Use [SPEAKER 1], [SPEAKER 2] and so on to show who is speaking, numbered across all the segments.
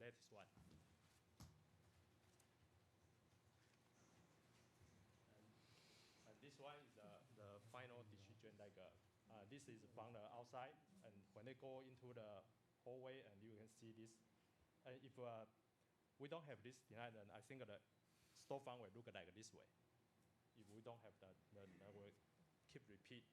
[SPEAKER 1] That is one. And, and this one is the, the final decision, like, uh, uh, this is from the outside, and when they go into the hallway, and you can see this. And if uh, we don't have this tonight, then I think the storefront will look like this way. If we don't have that, then I will keep repeat.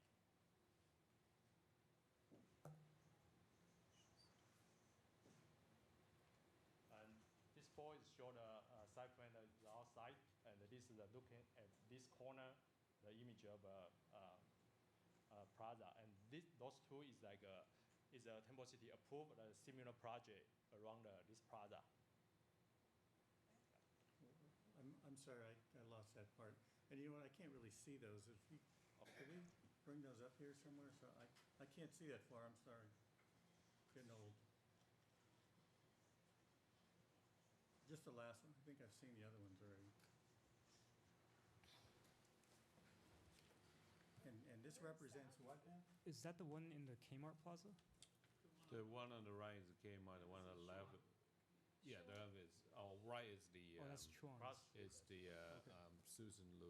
[SPEAKER 1] And this pole is show the uh, side plan that is outside, and this is uh, looking at this corner, the image of uh, uh, uh, Plaza. And this, those two is like a, is a Temple City approved uh, similar project around the, this Plaza.
[SPEAKER 2] I'm, I'm sorry, I, I lost that part. And you know what, I can't really see those. If you, could we bring those up here somewhere? So I, I can't see that far, I'm sorry. Getting old. Just the last one, I think I've seen the other ones already. And, and this represents what now?
[SPEAKER 3] Is that the one in the Kmart Plaza? Oh,
[SPEAKER 4] The one on the right is the Kmart, the one on the left, yeah, the other is, oh, right is the,
[SPEAKER 3] oh,
[SPEAKER 4] um,
[SPEAKER 3] that's Chuan's.
[SPEAKER 1] Cross-
[SPEAKER 4] is the, uh, um, Susan Lou,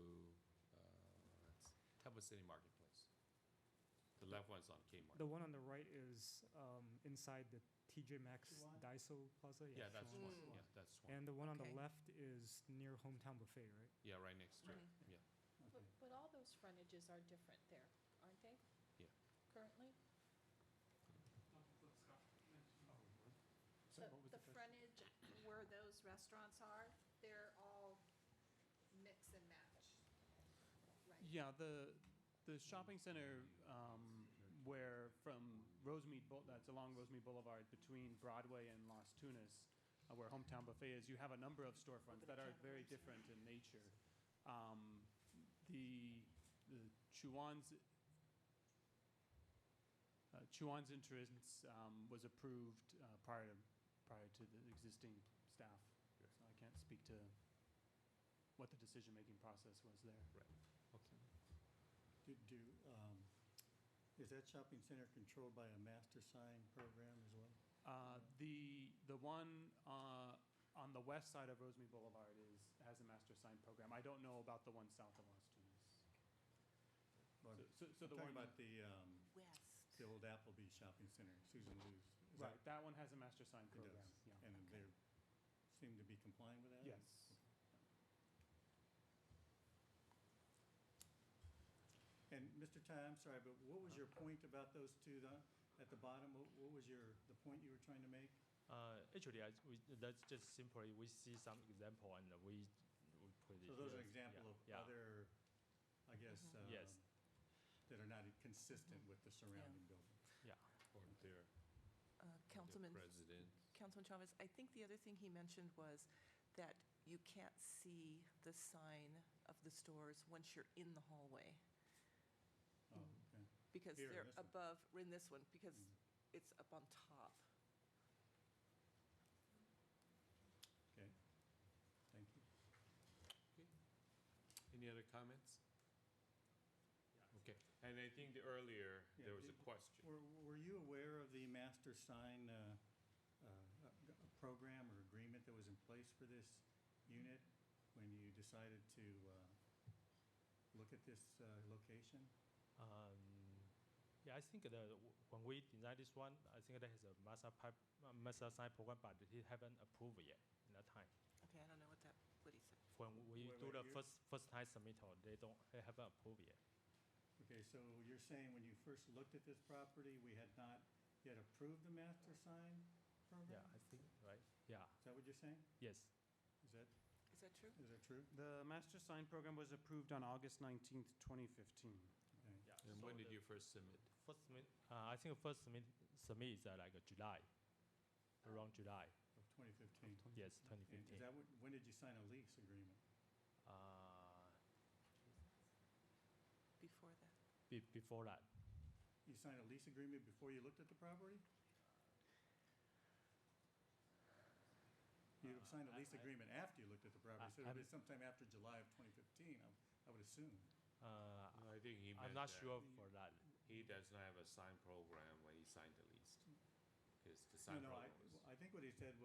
[SPEAKER 4] uh, that's, Temple City Marketplace. The left one's on
[SPEAKER 3] The
[SPEAKER 4] Kmart.
[SPEAKER 3] one on the right is um, inside the TJ Maxx
[SPEAKER 2] Chuan?
[SPEAKER 3] Daiso Plaza.
[SPEAKER 4] Yeah, that's
[SPEAKER 3] Chuan's.
[SPEAKER 4] one, yeah, that's one,
[SPEAKER 3] And the one on the
[SPEAKER 5] Okay.
[SPEAKER 3] left is near Hometown Buffet, right?
[SPEAKER 4] yeah, right next to it, yeah.
[SPEAKER 2] Okay.
[SPEAKER 5] But, but all those frontages are different there, aren't they?
[SPEAKER 4] Yeah.
[SPEAKER 5] Currently?
[SPEAKER 2] So
[SPEAKER 5] The-
[SPEAKER 2] what was
[SPEAKER 5] The
[SPEAKER 2] the first-
[SPEAKER 5] frontage where those restaurants are, they're all mix and match, right?
[SPEAKER 6] Yeah, the the shopping center um, where from Rosemead Boul- that's along Rosemead Boulevard between Broadway and Las Tunas, uh, where Hometown Buffet is, you have a number of storefronts that are very different in nature. Um, the the Chuan's uh, Chuan's entrance um, was approved uh, prior to prior to the existing staff, so I can't speak to what the decision making process was there.
[SPEAKER 4] Okay.
[SPEAKER 2] Do, do, um, is that shopping center controlled by a master sign program as well?
[SPEAKER 6] Uh, The, the one uh, on the west side of Rosemead Boulevard is, has a master sign program. I don't know about the one south of Las Tunas.
[SPEAKER 2] Or-
[SPEAKER 6] So- So, so
[SPEAKER 2] I'm
[SPEAKER 6] the
[SPEAKER 2] talking
[SPEAKER 6] one,
[SPEAKER 2] about the, um, the old Applebee Shopping Center, Susan Lou's. Is that-
[SPEAKER 6] right, that one has a master sign
[SPEAKER 2] It
[SPEAKER 6] program,
[SPEAKER 2] does.
[SPEAKER 6] yeah.
[SPEAKER 2] And they seem to be complying with that?
[SPEAKER 6] Yes.
[SPEAKER 2] And Mr. Ty, I'm sorry, but what was your point about those two the- at the bottom? What what was your, the point you were trying to make?
[SPEAKER 1] Uh, actually, I, we, that's just simply we see some example and we, we put it.
[SPEAKER 2] So those are
[SPEAKER 1] here.
[SPEAKER 2] example
[SPEAKER 1] Yeah,
[SPEAKER 2] of
[SPEAKER 1] yeah.
[SPEAKER 2] other, I guess, um,
[SPEAKER 1] Yes.
[SPEAKER 2] that are not consistent with the surrounding building.
[SPEAKER 1] Yeah.
[SPEAKER 4] Or their,
[SPEAKER 7] Uh,
[SPEAKER 4] their
[SPEAKER 7] Councilman,
[SPEAKER 4] president.
[SPEAKER 7] Councilman Chavez, I think the other thing he mentioned was that you can't see the sign of the stores once you're in the hallway,
[SPEAKER 2] Oh, okay.
[SPEAKER 7] because
[SPEAKER 2] Here, in
[SPEAKER 7] they're
[SPEAKER 2] this one.
[SPEAKER 7] above, in this one, because
[SPEAKER 2] Mm.
[SPEAKER 7] it's up on top.
[SPEAKER 2] Okay. Thank you.
[SPEAKER 4] Any other comments? Okay, and I think the earlier,
[SPEAKER 2] Yeah,
[SPEAKER 4] there was a
[SPEAKER 2] did-
[SPEAKER 4] question.
[SPEAKER 2] Were, were you aware of the master sign, uh, uh, uh, program or agreement that was in place for this unit when you decided to, uh, look at this, uh, location?
[SPEAKER 1] Um, yeah, I think the when we design this one, I think that has a master pipe, uh, master sign program, but it haven't approved yet in that time.
[SPEAKER 7] Okay, I don't know what that, what he said.
[SPEAKER 1] When we
[SPEAKER 2] Wait,
[SPEAKER 1] do
[SPEAKER 2] wait,
[SPEAKER 1] the
[SPEAKER 2] you-
[SPEAKER 1] first first time submittal, they don't they haven't approved yet.
[SPEAKER 2] Okay, so you're saying when you first looked at this property, we had not yet approved the master sign
[SPEAKER 1] Yeah,
[SPEAKER 7] Mm-hmm.
[SPEAKER 2] program?
[SPEAKER 1] I think right. Yeah.
[SPEAKER 2] Is that what you're saying?
[SPEAKER 1] Yes.
[SPEAKER 2] Is that,
[SPEAKER 7] Is that true?
[SPEAKER 2] is that true?
[SPEAKER 6] The master sign program was approved on August nineteenth, twenty fifteen.
[SPEAKER 2] Okay.
[SPEAKER 1] Yeah.
[SPEAKER 4] And
[SPEAKER 1] so
[SPEAKER 4] when did
[SPEAKER 1] the
[SPEAKER 4] you first submit?
[SPEAKER 1] first submit? Uh, I think first submit submit is uh, like uh, July, around July.
[SPEAKER 2] Of twenty fifteen.
[SPEAKER 1] Yes,
[SPEAKER 2] And
[SPEAKER 1] 2015.
[SPEAKER 2] is that, when- when did you sign a lease agreement?
[SPEAKER 1] uh,
[SPEAKER 7] Before that?
[SPEAKER 1] be, before that.
[SPEAKER 2] You signed a lease agreement before you looked at the property? You
[SPEAKER 1] Uh,
[SPEAKER 2] signed a
[SPEAKER 1] I-
[SPEAKER 2] lease
[SPEAKER 1] I-
[SPEAKER 2] agreement after you looked at the
[SPEAKER 1] I-
[SPEAKER 2] property, so it
[SPEAKER 1] I'm-
[SPEAKER 2] was sometime after July of 2015, I- I would assume.
[SPEAKER 1] Uh,
[SPEAKER 4] I think he meant
[SPEAKER 1] I'm not
[SPEAKER 4] that.
[SPEAKER 1] sure for that.
[SPEAKER 4] He does not have a signed program when he signed the lease, because the
[SPEAKER 2] No,
[SPEAKER 4] signed
[SPEAKER 2] no, I,
[SPEAKER 4] program was.
[SPEAKER 2] I think what he said